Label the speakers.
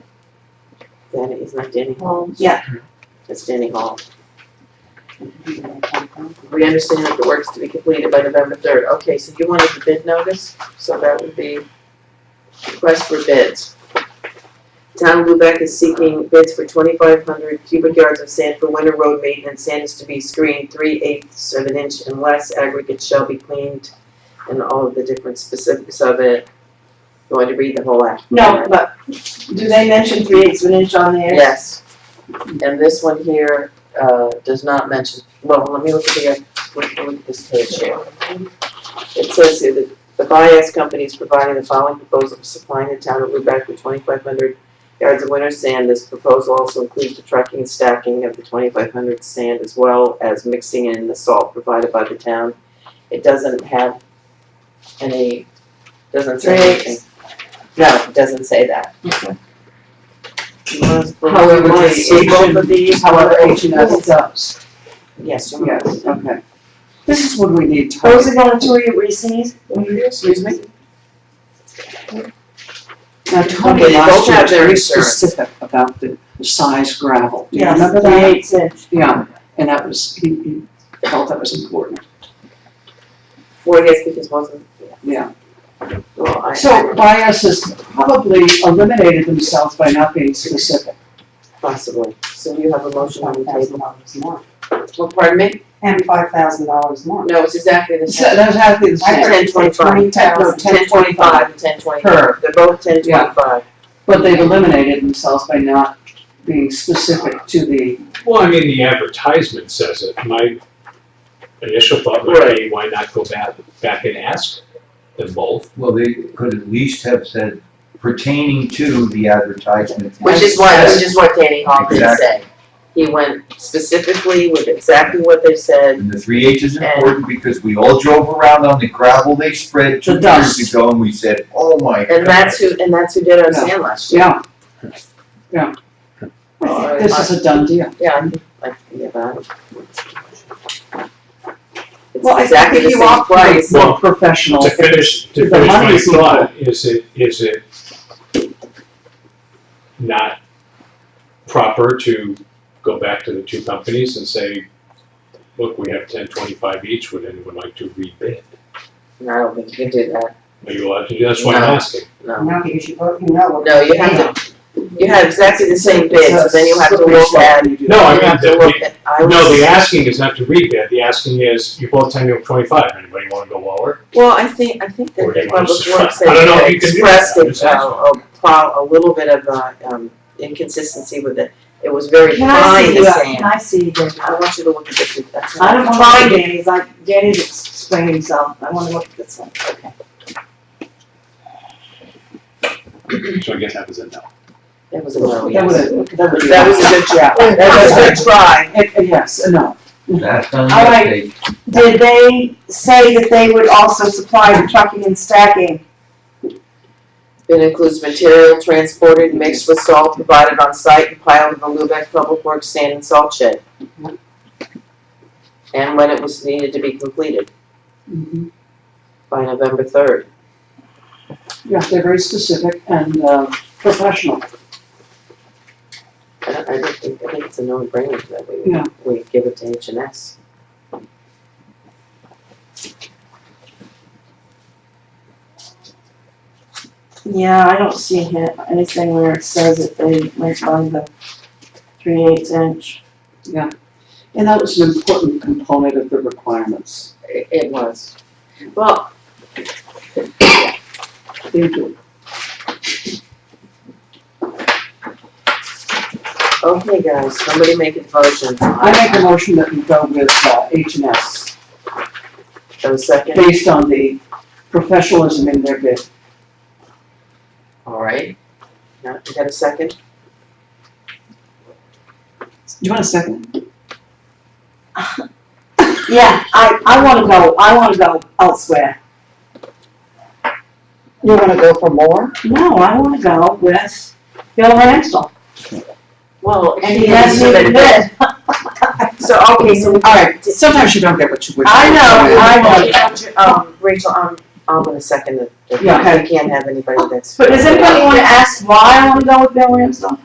Speaker 1: That is not Denny.
Speaker 2: Um,
Speaker 3: Well,
Speaker 1: Yeah. That's Denny Hall. We understand that the work's to be completed by November third. Okay, so you wanted the bid notice, so that would be request for bids. Town of Lubec is seeking bids for twenty-five hundred cubic yards of sand for winter road maintenance. Sand is to be screened three eighths of an inch and less. Aggregate shall be cleaned and all of the different specifics of it. You want to read the whole act?
Speaker 3: no, but do they mention three eighths of an inch on there?
Speaker 1: Yes. And this one here, uh, does not mention, well, let me look at the, let me look at this page here. It says here that the bias company is providing the following proposal for supplying the town of Lubec with twenty-five hundred yards of winter sand. This proposal also includes the trucking and stacking of the twenty-five hundred sand as well as mixing in the salt provided by the town. It doesn't have any, doesn't say
Speaker 3: Rates.
Speaker 1: anything. No, it doesn't say that.
Speaker 3: However,
Speaker 1: You wanna
Speaker 3: the
Speaker 1: see both of these?
Speaker 3: However, H and S does.
Speaker 1: Yes. you want-
Speaker 3: Yes, okay. This is what we need.
Speaker 2: Those are going to your recent,
Speaker 3: Excuse me? Now, Tony
Speaker 1: Okay, they both have
Speaker 3: last year was
Speaker 1: their
Speaker 3: very
Speaker 1: insurance.
Speaker 3: specific about the the size gravel. Do you
Speaker 2: yes,
Speaker 3: remember
Speaker 2: three
Speaker 3: that?
Speaker 2: eighths inch.
Speaker 3: Yeah, and that was, he, he felt that was important,
Speaker 1: Well, yes, because wasn't, yeah,
Speaker 3: yeah.
Speaker 1: well, I.
Speaker 3: So bias has probably eliminated themselves by not being specific.
Speaker 1: Possibly. So you have a motion on the table.
Speaker 2: dollars more.
Speaker 1: Well, pardon me?
Speaker 2: And five thousand dollars more.
Speaker 1: No, it's exactly the
Speaker 3: So
Speaker 1: same.
Speaker 3: that's exactly the
Speaker 2: I
Speaker 3: same.
Speaker 2: heard
Speaker 1: Ten twenty-five.
Speaker 3: Ten, no, ten twenty-five,
Speaker 1: and ten twenty-five.
Speaker 3: per,
Speaker 1: They're both ten
Speaker 3: Yeah.
Speaker 1: twenty-five.
Speaker 3: but they've eliminated themselves by not being specific to the,
Speaker 4: Well, I mean, the advertisement says it. My initial thought would be, why not go back, back and ask them both?
Speaker 5: Well, they could at least have said pertaining to the advertisement.
Speaker 1: Which is what, which is what Danny Hall did
Speaker 5: Exactly.
Speaker 1: say. He went specifically with exactly what they said.
Speaker 5: And the three H is important because we all drove around on the gravel they spread two
Speaker 3: The dust.
Speaker 5: years ago and we said, oh my god.
Speaker 1: And that's who, and that's who did our sand last year.
Speaker 3: yeah, yeah. I think This is a done deal.
Speaker 1: Yeah, I think, I think about it. It's
Speaker 3: Well, I
Speaker 1: exactly
Speaker 3: think
Speaker 1: the
Speaker 3: you
Speaker 1: same
Speaker 3: are
Speaker 1: price.
Speaker 3: right, more
Speaker 4: Well,
Speaker 3: professional.
Speaker 4: To finish,
Speaker 3: The
Speaker 4: to finish my
Speaker 3: money's equal.
Speaker 4: thought, is it, is it not proper to go back to the two companies and say, look, we have ten twenty-five each, would anyone like to rebid?
Speaker 1: No, I don't think you can do that.
Speaker 4: Are you allowed to do, that's why I'm
Speaker 1: No.
Speaker 4: asking.
Speaker 1: No.
Speaker 2: No, because you both, you know what.
Speaker 1: No, you have to, you have exactly the same bid, so then you have to look at.
Speaker 4: No, I
Speaker 1: you
Speaker 4: mean,
Speaker 1: have to
Speaker 4: the-
Speaker 1: look at- I
Speaker 4: No,
Speaker 1: was-
Speaker 4: the asking is not to rebid, the asking is, you both ten twenty-five, anybody wanna go lower?
Speaker 1: Well, I think, I think that
Speaker 4: Or
Speaker 1: the
Speaker 4: you wanna
Speaker 1: public
Speaker 4: just-
Speaker 1: works
Speaker 4: I don't know if
Speaker 1: had
Speaker 4: you can do
Speaker 1: expressed
Speaker 4: that, I'm
Speaker 1: it,
Speaker 4: just
Speaker 1: uh, a, pro- a little bit of, uh, um, inconsistency with it. It was very
Speaker 2: Can I
Speaker 1: fine,
Speaker 2: see
Speaker 1: the
Speaker 2: you,
Speaker 1: same.
Speaker 2: can I see you, Danny?
Speaker 1: I want you to look at the, that's.
Speaker 2: I don't want to see Danny's, like, Danny's explaining himself, I wanna look at this one.
Speaker 4: So I guess that was a no.
Speaker 1: That was a no,
Speaker 3: That
Speaker 1: yes.
Speaker 3: would, that would be.
Speaker 1: That was a good job. That was a good try.
Speaker 3: Eh, eh, Yes, no,
Speaker 5: That's on
Speaker 2: All right.
Speaker 5: that page.
Speaker 2: Did they say that they would also supply the trucking and stacking?
Speaker 1: It includes material transported and mixed with salt provided on site and piled in the Lubec Public Works sand and salt shed. And when it was needed to be completed
Speaker 3: Mhm.
Speaker 1: by November third.
Speaker 3: yeah, they're very specific and, uh, professional.
Speaker 1: I don't, I don't think, I think it's a no-brainer that
Speaker 3: Yeah.
Speaker 1: we, we give it to H and S.
Speaker 2: Yeah, I don't see it- anything where it says that they went by the three eighths inch.
Speaker 3: And that was an important component of the requirements.
Speaker 1: It, it was. Well,
Speaker 3: They do.
Speaker 1: okay, guys, somebody make a motion.
Speaker 3: I make a motion that we go with uh, H and S
Speaker 1: So second,
Speaker 3: based on the professionalism in their bid.
Speaker 1: all right. Now, you got a second?
Speaker 3: Do you want a second?
Speaker 2: Yeah, I, I wanna go, I wanna go elsewhere.
Speaker 3: You wanna go for more?
Speaker 2: No, I wanna go with Bill Ransell.
Speaker 1: Well,
Speaker 2: And he has me in bed.
Speaker 1: So, okay, so.
Speaker 3: All right, sometimes you don't get what you wish. for.
Speaker 2: I know, I know.
Speaker 1: Um, Rachel, I'm, I'm gonna second it.
Speaker 3: Yeah.
Speaker 1: I can't have anybody that's.
Speaker 2: But does anybody wanna ask why I wanna go with Bill Ransell?